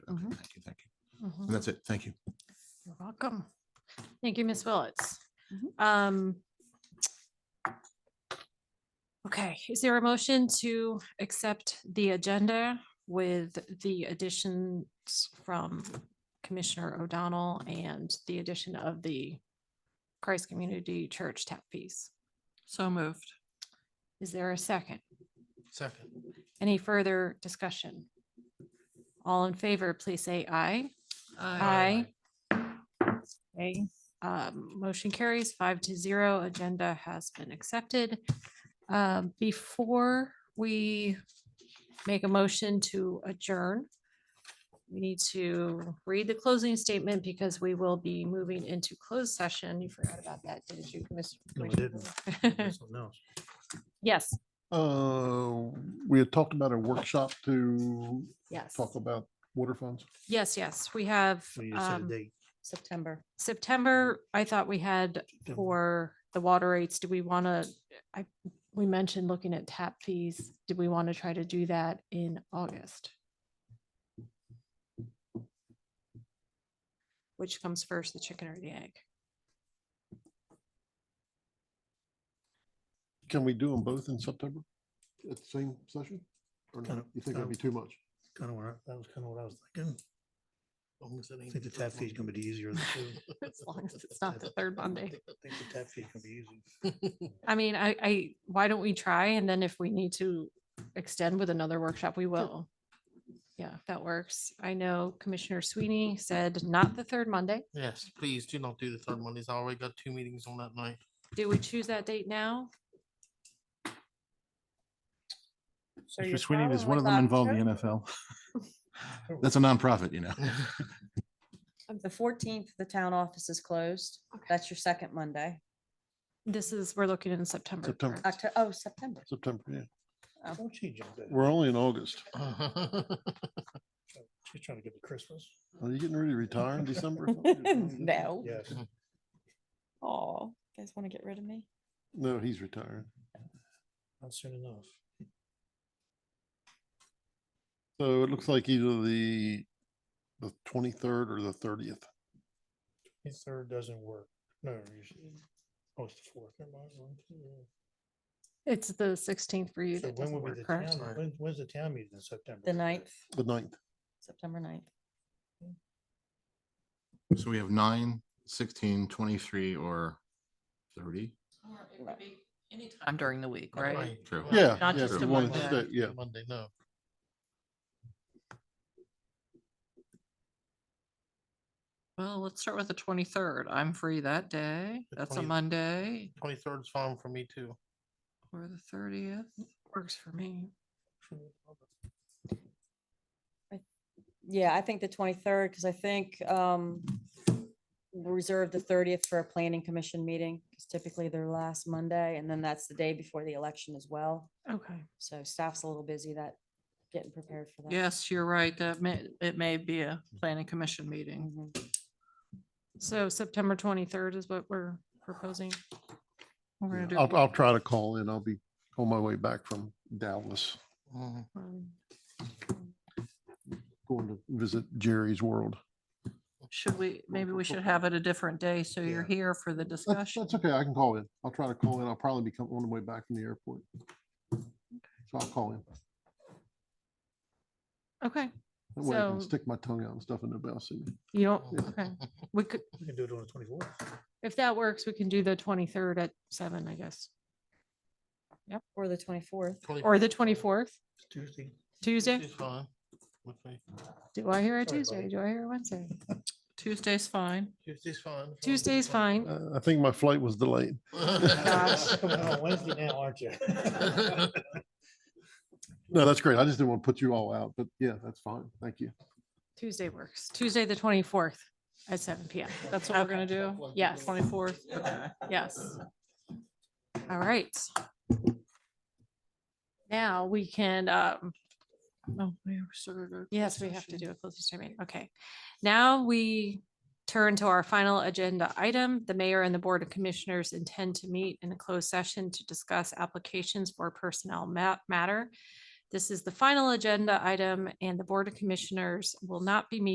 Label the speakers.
Speaker 1: Okay,
Speaker 2: Mhm.
Speaker 1: Thank you, thank you.
Speaker 2: Mhm.
Speaker 3: Mm-hmm.
Speaker 1: And that's it. Thank you.
Speaker 2: You're welcome. Thank you, Ms. Willetts.
Speaker 4: Mhm.
Speaker 2: Um. Okay, is there a motion to accept the agenda with the additions from Commissioner O'Donnell and the addition of the Christ Community Church tap fees?
Speaker 4: So moved.
Speaker 2: Is there a second?
Speaker 5: Second.
Speaker 2: Any further discussion? All in favor, please say aye. Aye. Okay, um, motion carries five to zero. Agenda has been accepted. Um, before we make a motion to adjourn, we need to read the closing statement because we will be moving into closed session. You forgot about that, didn't you? Commis-
Speaker 5: No, I didn't.
Speaker 2: Commissioner? Yes,
Speaker 3: Uh, we had talked about a workshop to
Speaker 2: yes,
Speaker 3: talk about water funds.
Speaker 2: yes, yes. We have, um,
Speaker 4: September.
Speaker 2: September, I thought we had
Speaker 5: September.
Speaker 2: for the water rates, do we want to, I, we mentioned looking at tap fees. Did we want to try to do that in August? Which comes first, the chicken or the egg?
Speaker 3: Can we do them both in September at the same session? Or no?
Speaker 5: Kinda- um,
Speaker 3: You think that'd be
Speaker 5: kinda-
Speaker 3: too much?
Speaker 5: Kind of what, I- that was kind of what I was thinking. I think the tap fee is gonna be easier. than two.
Speaker 2: As long as it's not the third Monday.
Speaker 5: I think the tap fee can be easy.
Speaker 2: I mean, I, I, why don't we try? And then if we need to extend with another workshop, we will. Yeah, that works. I know Commissioner Sweeney said not the third Monday.
Speaker 5: Yes, please do not do the third Mondays. I already got two meetings on that night.
Speaker 2: Do we choose that date now?
Speaker 1: Mr. Sweeney, does one of them involve the NFL? That's a nonprofit, you know.
Speaker 4: The fourteenth, the town office is closed. That's your second Monday.
Speaker 2: This is, we're looking in September.
Speaker 3: September.
Speaker 2: correct?
Speaker 4: Octo, oh, September.
Speaker 3: September, yeah.
Speaker 5: Don't she jump in?
Speaker 3: We're only in August.
Speaker 5: She's trying to get to Christmas.
Speaker 3: Are you getting ready to retire in December? or something?
Speaker 4: No.
Speaker 5: Yes.
Speaker 4: Oh, guys want to get rid of me?
Speaker 3: No, he's retiring.
Speaker 5: Not soon enough.
Speaker 3: So it looks like either the, the twenty-third or the thirtieth.
Speaker 5: The third doesn't work. No, usually. Oh, it's the fourth. Never mind. One, two, yeah.
Speaker 2: It's the sixteenth for you
Speaker 5: So
Speaker 2: that
Speaker 5: when
Speaker 2: doesn't
Speaker 5: will be the
Speaker 2: work,
Speaker 5: town,
Speaker 2: correct?
Speaker 5: when, when's the town meeting in September?
Speaker 4: The ninth,
Speaker 3: The ninth.
Speaker 4: September ninth.
Speaker 1: So we have nine, sixteen, twenty-three, or thirty?
Speaker 6: I'm during the week, right?
Speaker 1: True.
Speaker 3: Yeah.
Speaker 6: Not
Speaker 3: yeah,
Speaker 6: just
Speaker 3: if you
Speaker 6: a
Speaker 3: wanted to
Speaker 6: Monday.
Speaker 3: stay, Yeah.
Speaker 5: Monday, no.
Speaker 6: Well, let's start with the twenty-third. I'm free that day.
Speaker 5: The
Speaker 6: That's a
Speaker 5: 20th.
Speaker 6: Monday
Speaker 5: Twenty-third is fine for me too.
Speaker 6: or the thirtieth.
Speaker 2: Works for me.
Speaker 4: Yeah, I think the twenty-third, because I think, um, we'll reserve the thirtieth for a planning commission meeting. It's typically their last Monday, and then that's the day before the election as well.
Speaker 2: Okay.
Speaker 4: So staff's a little busy that, getting prepared for that.
Speaker 6: Yes, you're right. That may, it may be a planning commission meeting.
Speaker 4: Mhm.
Speaker 2: So September twenty-third is what we're proposing.
Speaker 6: We're gonna
Speaker 3: Yeah.
Speaker 6: do-
Speaker 3: I'll, I'll try to call in. I'll be on my way back from Dallas,
Speaker 5: Mhm.
Speaker 2: Um,
Speaker 3: going to visit Jerry's World.
Speaker 6: Should we, maybe we should have it a different day so you're
Speaker 5: Yeah.
Speaker 6: here for the
Speaker 3: That's,
Speaker 6: discussion.
Speaker 3: that's okay. I can call in. I'll try to call in. I'll probably be coming on the way back from the airport. So I'll call in.
Speaker 2: Okay,
Speaker 3: That way I can
Speaker 2: So-
Speaker 3: stick my tongue out and stuff and nobody will see me.
Speaker 2: you don't, okay. We could,
Speaker 5: We can do it on the twenty-fourth.
Speaker 2: if that works, we can do the twenty-third at seven, I guess,
Speaker 4: Or the twenty-fourth.
Speaker 2: or the twenty-fourth,
Speaker 5: Tuesday.
Speaker 2: Tuesday.
Speaker 5: Tuesday's fine with me.
Speaker 2: Do I hear a
Speaker 5: Sorry,
Speaker 2: Tuesday?
Speaker 5: buddy.
Speaker 2: Do I hear a Wednesday?
Speaker 6: Tuesday's fine.
Speaker 5: Tuesday's fine.
Speaker 2: Tuesday's fine.
Speaker 3: Uh, I think my flight was delayed.
Speaker 2: Gosh.
Speaker 5: Coming on Wednesday now, aren't you?
Speaker 3: No, that's great. I just didn't want to put you all out, but yeah, that's fine. Thank you.
Speaker 2: Tuesday works. Tuesday, the twenty-fourth at seven PM.
Speaker 6: That's what we're
Speaker 2: Okay.
Speaker 6: gonna do.
Speaker 2: Yes.
Speaker 6: Twenty-fourth. Okay.
Speaker 2: Yes. All right. Now we can, um,
Speaker 6: Oh, we were sort of-
Speaker 2: yes, we have to do a closing statement. Okay. Now we turn to our final agenda item. The mayor and the board of commissioners intend to meet in a closed session to discuss applications for personnel ma- matter This is the final agenda item and the Board of Commissioners will not be meeting